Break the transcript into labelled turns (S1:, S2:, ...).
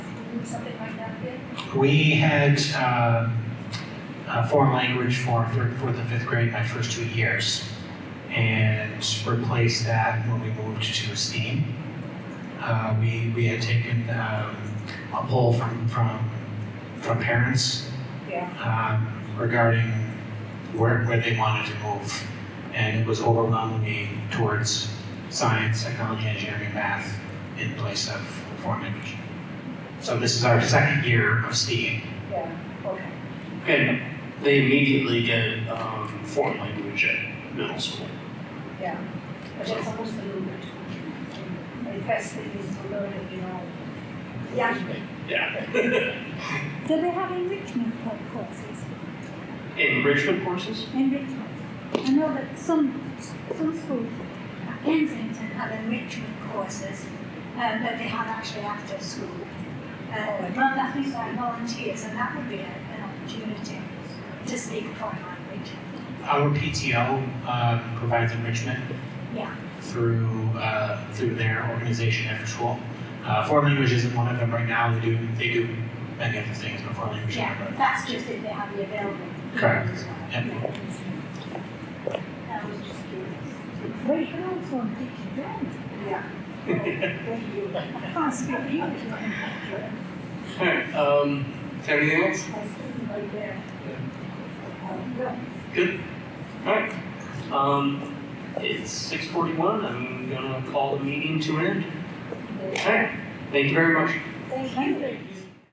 S1: do something like that again?
S2: We had uh, a foreign language for third, fourth, and fifth grade my first two years, and replaced that when we moved to STEAM. Uh, we we had taken um, a poll from from from parents
S1: Yeah.
S2: um, regarding where where they wanted to move, and it was overwhelmingly towards science, technology, engineering, math in place of foreign language. So this is our second year of STEAM.
S1: Yeah, okay.
S3: And they immediately get um, foreign language at middle school.
S1: But they're supposed to learn it. The best thing is to learn it, you know. Yeah.
S3: Yeah.
S4: Do they have enrichment co- courses?
S3: Enrichment courses?
S4: Enrichment. I know that some some schools, uh, like Kensington, have enrichment courses um, that they have actually after school.
S1: Oh,
S4: Uh, run that things by volunteers, and that would be a, an opportunity to speak a foreign language.
S2: Our PTO um, provides enrichment
S4: Yeah.
S2: through uh, through their organization after school. Uh, foreign language isn't one of them right now. They do they do many other things, but foreign language is one
S4: Yeah,
S2: of them.
S4: that's just if they have the available.
S2: Correct.
S4: as well.
S2: Yep.
S4: That was just curious.
S5: Well, you can also teach German.
S1: Yeah. Thank you.
S4: I can't speak English.
S3: All right. Um, is there anything else?
S1: I see right there. Um,
S3: All right. Um, it's six forty-one. I'm gonna call the meeting to an end.
S1: yeah.
S3: All right. Thank you very much.
S1: Thank you.